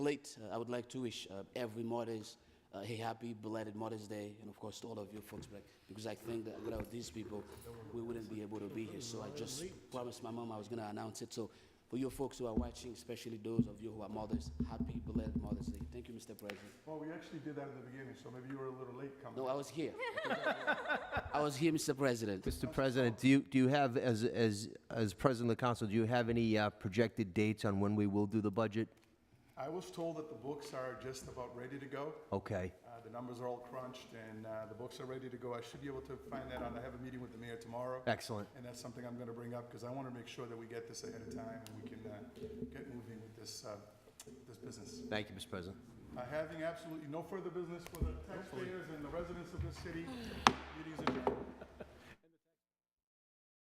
late, uh, I would like to wish uh, every Mother's uh, a happy belated Mother's Day, and of course to all of you folks back, because I think that without these people, we wouldn't be able to be here. So I just promised my mom I was going to announce it. So for you folks who are watching, especially those of you who are mothers, happy belated Mother's Day. Thank you, Mr. President. Well, we actually did that in the beginning, so maybe you were a little late coming. No, I was here. I was here, Mr. President. Mr. President, do you, do you have, as, as, as President of the Council, do you have any uh, projected dates on when we will do the budget? I was told that the books are just about ready to go. Okay, Uh, The numbers are all crunched, and uh, the books are ready to go. I should be able to find that out. I have a meeting with the mayor tomorrow. excellent. And that's something I'm gonna bring up, because I wanna make sure that we get this ahead of time, and we can uh, get moving with this, uh, this business. Thank you, Mr. President. Uh, Having absolutely no further business for the taxpayers and the residents of this city, meetings adjourned.